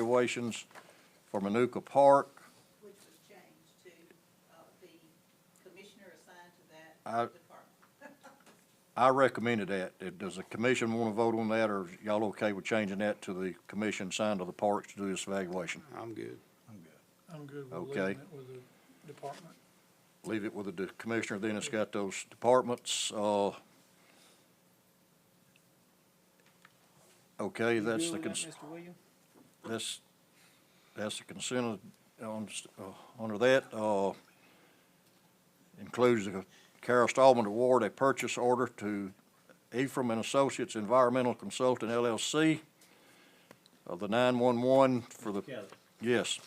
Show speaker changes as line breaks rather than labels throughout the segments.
evaluations for Manuka Park.
which was changed to, uh, the commissioner assigned to that
I-
department.
I recommended that. Uh, Does the commission want to vote on that, or is y'all okay with changing that to the commission assigned to the parks to do this evaluation?
I'm good.
I'm good with
Okay.
leaving it with the department.
Leave it with the commissioner, then it's got those departments, uh. Okay, that's the, cons-
Mr. Williams?
that's, that's the consent of, on, s- uh, under that, uh, includes the Carol Stallman Award, a purchase order to Ephraim and Associates Environmental Consultant LLC of uh, the nine-one-one for the,
Kelly,
yes,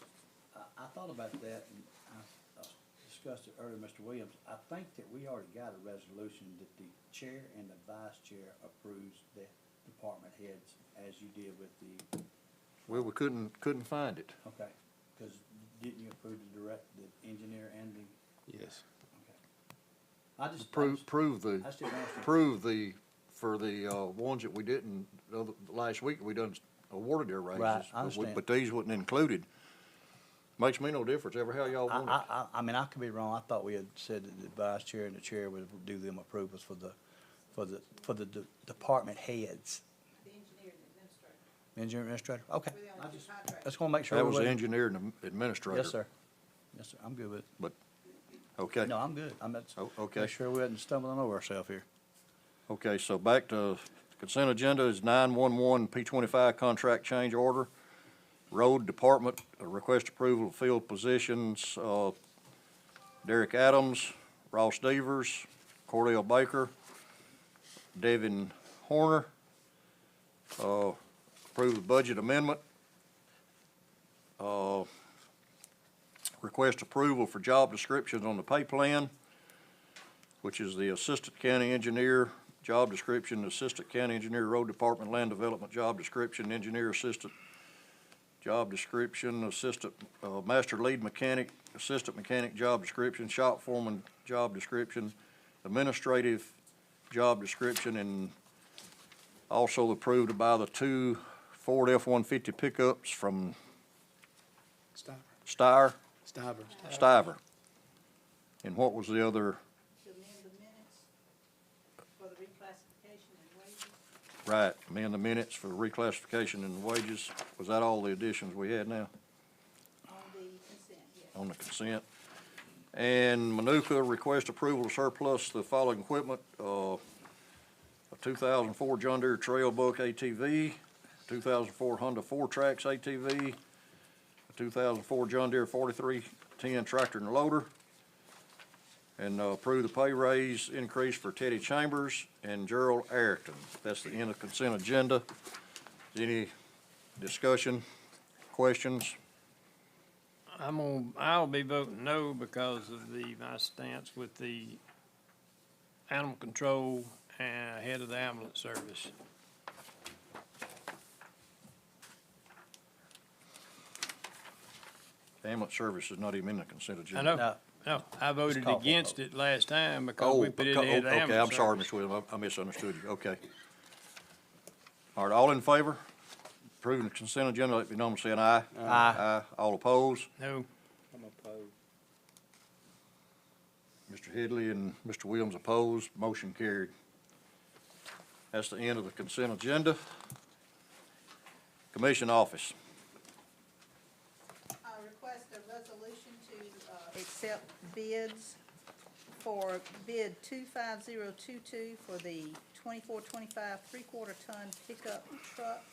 I, I thought about that and I uh, discussed it earlier, Mr. Williams. I think that we already got a resolution that the chair and the vice chair approves the department heads as you did with the,
well, we couldn't, couldn't find it.
okay? Cause didn't you approve the direct, the engineer and the,
Yes.
okay? I just. I
Prove,
just-
prove the.
I still don't understand.
approve the, for the, uh, ones that we didn't, the other- last week, we done awarded their raises.
Right, I
but we-
understand.
But these wasn't included. Makes me no difference, ever how y'all
I,
want
I,
it.
I, I mean, I could be wrong. I thought we had said that the vice chair and the chair would do them approvals for the, for the, for the de- department heads.
The engineer and administrator,
Engineer administrator, okay.
we
I
only do
just-
contracts.
Just wanna make sure.
That was the
everybody-
engineer and the administrator.
Yes, sir. Yes, sir. I'm good with it.
But, okay,
No, I'm good. I'm, that's,
Oh, okay.
make sure we wasn't stumbling over ourselves here.
okay, so back to consent agenda is nine-one-one P twenty-five contract change order. Road Department, uh, request approval of field positions, uh, Derek Adams, Ross Devers, Cordell Baker, Devin Horner. Uh, approve the budget amendment. Uh, request approval for job descriptions on the pay plan, which is the Assistant County Engineer job description, Assistant County Engineer, Road Department, Land Development job description, Engineer Assistant job description, assistant, uh, master lead mechanic, assistant mechanic job description, shop foreman job description, administrative job description, and also approved by the two Ford F-150 pickups from
Stiver.
Steyr,
Stiver.
Stiver. And what was the other,
To amend the minutes for the reclassification and wages.
right, amend the minutes for reclassification and wages? Was that all the additions we had now?
on the consent, yes.
on the consent. And Manuka, request approval to surplus the following equipment, uh, a two thousand four John Deere Trail Book ATV, two thousand four Honda Four Tracks ATV, a two thousand four John Deere forty-three ten tractor and loader, and uh, approve the pay raise increase for Teddy Chambers and Gerald Ayrton. That's the end of consent agenda. Any discussion, questions?
I'm on, I'll be voting no because of the, my stance with the animal control and head of the ambulance service.
Ambulance service is not even in the consent agenda.
I know,
No.
no, I voted
call for a
against it last time because
Oh,
we put in
beca-
the head of the
oh, Okay, I'm
ambulance
sorry,
service.
Ms. Williams, I I misunderstood you, okay. All right, all in favor? Approving the consent agenda, let me know by saying aye.
Aye.
Aye, all opposed?
No,
I'm opposed.
Mr. Headley and Mr. Williams opposed, motion carried. That's the end of the consent agenda. Commission office,
I request a resolution to, uh, accept bids for bid two-five-zero-two-two for the twenty-four, twenty-five, three-quarter ton pickup truck.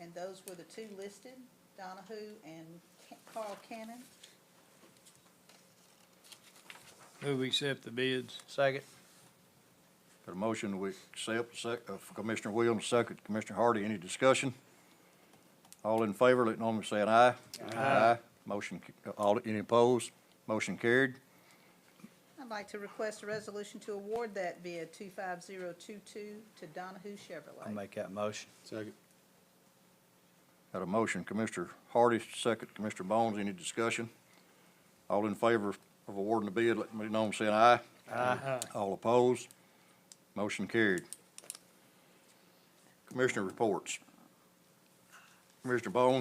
And those were the two listed, Donahue and Ca- Carl Cannon.
move we accept the bids.
Second.
got a motion we accept, sec, uh, Commissioner Williams, second, Commissioner Hardy, any discussion? All in favor, let me know by saying aye. Aye. Motion, ca- uh, all, any opposed? Motion carried.
I'd like to request a resolution to award that bid two-five-zero-two-two to Donahue
I'll
Chevrolet.
make that motion.
Second.
Got a motion, Commissioner Hardy, second, Commissioner Bones, any discussion? All in favor of awarding the bid, let me know by saying aye.
Aye.
All opposed? Motion carried. Commissioner reports. Mr. Bone,